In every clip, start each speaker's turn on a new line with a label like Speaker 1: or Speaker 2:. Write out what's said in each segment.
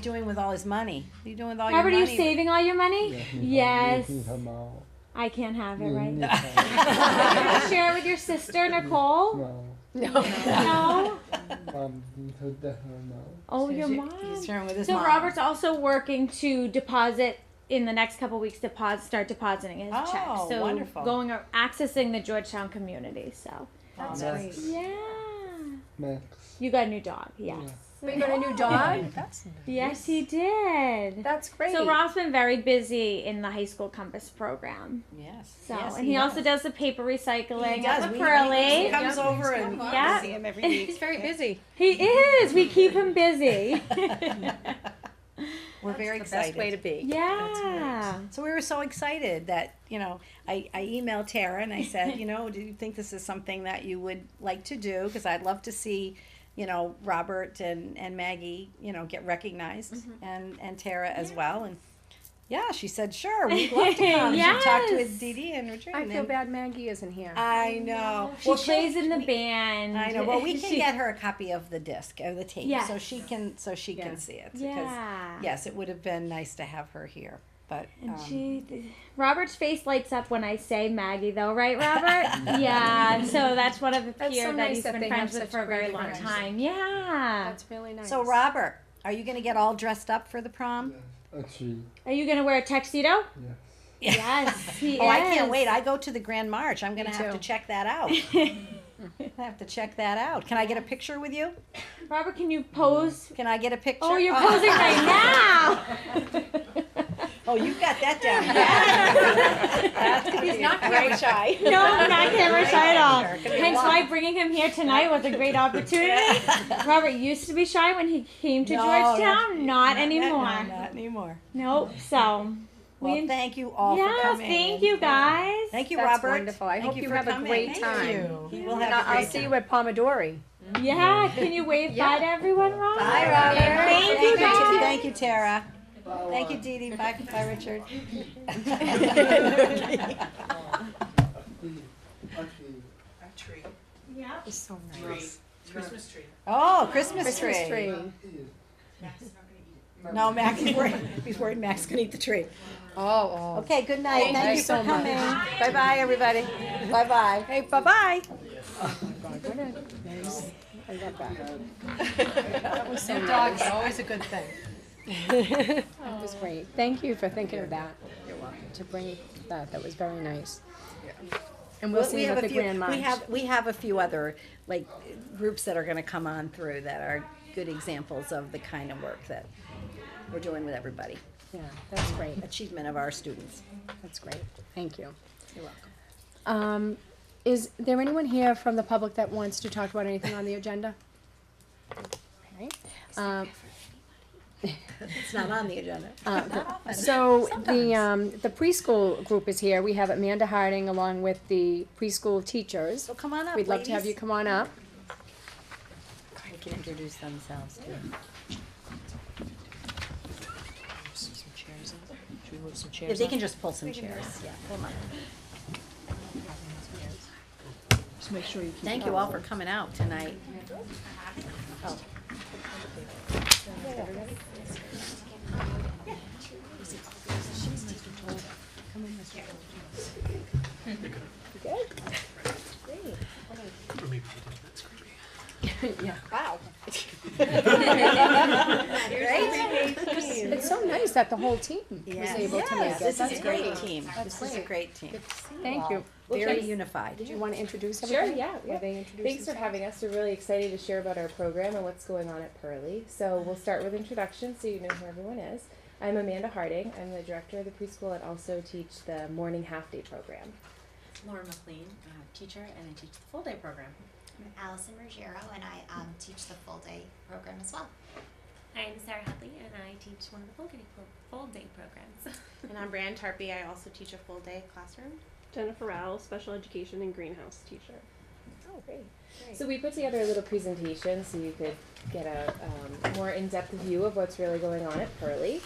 Speaker 1: doing with all his money? What are you doing with all
Speaker 2: Robert, are
Speaker 1: your
Speaker 2: you
Speaker 1: money?
Speaker 2: saving all your money? Yes.
Speaker 3: Jamal.
Speaker 2: I can't have it, right?
Speaker 3: Jamal.
Speaker 2: Can you share it with your sister, Nicole? No.
Speaker 3: Um, so definitely no.
Speaker 2: Oh, your
Speaker 1: He's-
Speaker 2: mom.
Speaker 1: He's sharing with his
Speaker 2: So
Speaker 1: mom.
Speaker 2: Robert's also working to deposit in the next couple weeks. Deposit, start depositing his
Speaker 1: Oh,
Speaker 2: checks. So
Speaker 1: wonderful.
Speaker 2: going or accessing the Georgetown community. So
Speaker 1: That's
Speaker 3: Yes.
Speaker 1: great.
Speaker 2: yeah,
Speaker 3: Max.
Speaker 2: you got a new dog. Yes,
Speaker 4: But you got a new dog?
Speaker 5: That's
Speaker 2: yes, he did.
Speaker 4: That's great.
Speaker 2: So Rob's been very busy in the high school compass program.
Speaker 1: Yes.
Speaker 2: So
Speaker 1: yes,
Speaker 2: and he, also does the paper recycling.
Speaker 1: He does.
Speaker 2: at the
Speaker 1: We-
Speaker 2: Pearly.
Speaker 1: He comes over and
Speaker 2: Yeah.
Speaker 5: see him every week.
Speaker 6: He's very busy.
Speaker 2: He is. We keep him busy.
Speaker 1: we're very
Speaker 6: That's the best
Speaker 1: excited.
Speaker 6: way to be.
Speaker 2: yeah.
Speaker 1: So we were so excited that, you know, I, I emailed Tara and I said, you know, do you think this is something that you would like to do? Because I'd love to see, you know, Robert and, and Maggie, you know, get recognized and, and Tara as well. And yeah, she said, sure, we'd love to come. She talked to his
Speaker 2: Yes.
Speaker 1: Dee Dee and Richard.
Speaker 4: I
Speaker 1: and
Speaker 4: feel
Speaker 1: then-
Speaker 4: bad Maggie isn't here.
Speaker 1: I know.
Speaker 2: She
Speaker 1: Well,
Speaker 2: plays in the
Speaker 1: we-
Speaker 2: band.
Speaker 1: I know. Well, we can
Speaker 2: She-
Speaker 1: get her a copy of the disc or the tape, so
Speaker 2: Yes.
Speaker 1: she can so she
Speaker 4: Yeah.
Speaker 1: can see it. Because,
Speaker 2: Yeah.
Speaker 1: yes, it would have been nice to have her here, but
Speaker 2: And
Speaker 1: um,
Speaker 2: she, Robert's face lights up when I say Maggie, though, right, Robert? yeah. So that's one of the
Speaker 4: That's
Speaker 2: peer
Speaker 4: so
Speaker 2: that
Speaker 4: nice
Speaker 2: he's
Speaker 4: that
Speaker 2: been
Speaker 4: they have
Speaker 2: friends with
Speaker 4: such
Speaker 2: for a very
Speaker 4: great
Speaker 2: long
Speaker 4: friends.
Speaker 2: time. Yeah.
Speaker 4: That's really nice.
Speaker 1: So Robert, are you gonna get all dressed up for the prom?
Speaker 3: Yes. Actually,
Speaker 2: Are you gonna wear a tuxedo?
Speaker 3: yes.
Speaker 2: Yes. He
Speaker 1: Oh, I can't
Speaker 2: is.
Speaker 1: wait. I go to the Grand March. I'm gonna
Speaker 4: Me
Speaker 1: have to
Speaker 4: too.
Speaker 1: check that out. I have to check that out. Can I get a picture with you?
Speaker 2: Robert, can you pose?
Speaker 1: Can I get a picture?
Speaker 2: Oh, you're posing right now.
Speaker 1: Oh, you got that down. That's gonna be a great
Speaker 6: shy.
Speaker 2: No, I'm not camera shy at all.
Speaker 1: Could be
Speaker 2: Hence
Speaker 1: one.
Speaker 2: why bringing him here tonight was a great opportunity. Robert used to be shy when he came to
Speaker 1: No,
Speaker 2: Georgetown. Not anymore.
Speaker 1: No, not anymore.
Speaker 2: Nope. So.
Speaker 1: Well,
Speaker 2: We-
Speaker 1: thank you all for
Speaker 2: yes,
Speaker 1: coming.
Speaker 2: thank you guys.
Speaker 1: Thank you,
Speaker 4: That's
Speaker 1: Robert.
Speaker 4: wonderful. I
Speaker 1: Thank
Speaker 4: hope you
Speaker 1: for
Speaker 4: have a
Speaker 1: coming.
Speaker 4: great
Speaker 1: Thank
Speaker 4: time.
Speaker 1: you. You will
Speaker 4: And
Speaker 1: have a
Speaker 4: I'll
Speaker 1: great
Speaker 4: see
Speaker 1: time.
Speaker 4: you at Pomodori.
Speaker 2: Yeah, can you wave bye to everyone, Rob?
Speaker 1: Bye, Robert.
Speaker 2: Thank you, guys.
Speaker 1: Thank you, Tara. Thank you, Dee Dee. Bye, bye, Richard.
Speaker 3: Actually,
Speaker 6: It's so nice.
Speaker 7: Christmas tree.
Speaker 1: Oh, Christmas tree.
Speaker 4: Christmas tree.
Speaker 3: it-
Speaker 7: Max is not gonna eat it.
Speaker 1: No, Max is worried, he's worried Max can eat the tree.
Speaker 4: Oh,
Speaker 1: Okay, good night. Thank you
Speaker 4: you so
Speaker 1: for
Speaker 4: much.
Speaker 1: coming. Bye-bye, everybody. Bye-bye. Hey, bye-bye.
Speaker 4: I love that.
Speaker 6: New dog is always a good thing.
Speaker 4: That was great. Thank you for thinking of that. To bring that, that was very nice. And we'll see
Speaker 1: We
Speaker 4: you
Speaker 1: have
Speaker 4: at
Speaker 1: a
Speaker 4: the
Speaker 1: few,
Speaker 4: Grand March.
Speaker 1: we have, we have a few other, like, groups that are gonna come on through that are good examples of the kind of work that we're doing with everybody.
Speaker 4: Yeah, that's great.
Speaker 1: Achievement of our students.
Speaker 4: That's great. Thank you.
Speaker 1: You're welcome.
Speaker 4: Um, is there anyone here from the public that wants to talk about anything on the agenda? Okay. Um,
Speaker 1: It's not on the agenda.
Speaker 4: So the, um, the preschool group is here. We have Amanda Harding along with the preschool teachers.
Speaker 1: So come on up,
Speaker 4: We'd love to have you
Speaker 1: ladies.
Speaker 4: come on up.
Speaker 1: They can introduce themselves too.
Speaker 5: Some chairs in. Should we move some
Speaker 1: If
Speaker 5: chairs?
Speaker 1: they can just pull some chairs, yeah, pull 'em up.
Speaker 5: Just make sure you keep.
Speaker 1: Thank you all for coming out tonight.
Speaker 4: It's so nice that the whole team was
Speaker 1: Yes.
Speaker 4: able to make it.
Speaker 1: This
Speaker 4: That's
Speaker 1: is a great
Speaker 4: great.
Speaker 1: team. This is a great team.
Speaker 4: Thank you.
Speaker 1: Very unified.
Speaker 4: Do you want to introduce
Speaker 8: Sure,
Speaker 4: everybody?
Speaker 8: yeah.
Speaker 4: Or
Speaker 8: yeah.
Speaker 4: they introduce
Speaker 8: Thanks for
Speaker 4: themselves?
Speaker 8: having us. We're really excited to share about our program and what's going on at Pearly. So we'll start with introductions so you know who everyone is. I'm Amanda Harding. I'm the director of the preschool and also teach the morning half day program.
Speaker 9: Lauren McLean, I'm a teacher, and I teach the full day program.
Speaker 10: I'm Allison Ruggiero, and I um, teach the full day program as well.
Speaker 11: I'm Sarah Hadley, and I teach one of the full day, pro- full day programs.
Speaker 9: And I'm Brian Tarpey. I also teach a full day classroom.
Speaker 8: Jennifer Rowell, special education and greenhouse teacher. Oh, great. So we put together a little presentation so you could get a um, more in-depth view of what's really going on at Pearly.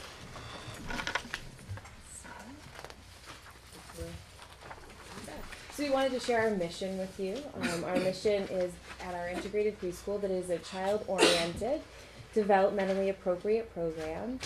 Speaker 8: So we wanted to share our mission with you. Um, our mission is at our integrated preschool that is a child-oriented developmentally appropriate program.